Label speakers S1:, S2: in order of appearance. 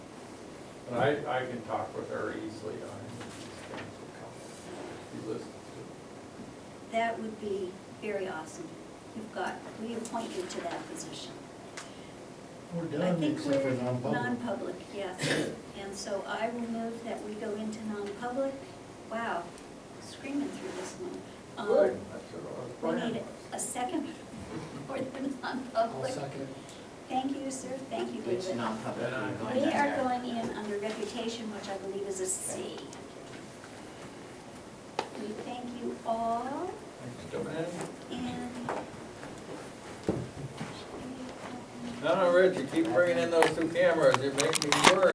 S1: And I, I can talk with her easily on these things. She listens to
S2: That would be very awesome. You've got, we appoint you to that position.
S3: We're
S2: I
S3: done,
S2: think
S3: except
S2: we're
S3: for non-public.
S2: Non-public, yes. And so I will move that we go into non-public. Wow, screaming through this one. Um,
S1: it. That's what I was
S2: We
S1: planning.
S2: need a second for the
S3: I'll
S2: non-public.
S3: second.
S2: Thank you, sir. Thank you,
S4: It's
S2: David.
S4: not public. we're going
S2: We
S4: down
S2: are
S4: there.
S2: going in under reputation, which I believe is a C. We thank you all
S1: Thanks, Joanne.
S2: and.
S1: No, no, Reggie, keep bringing in those two cameras, it makes me worry.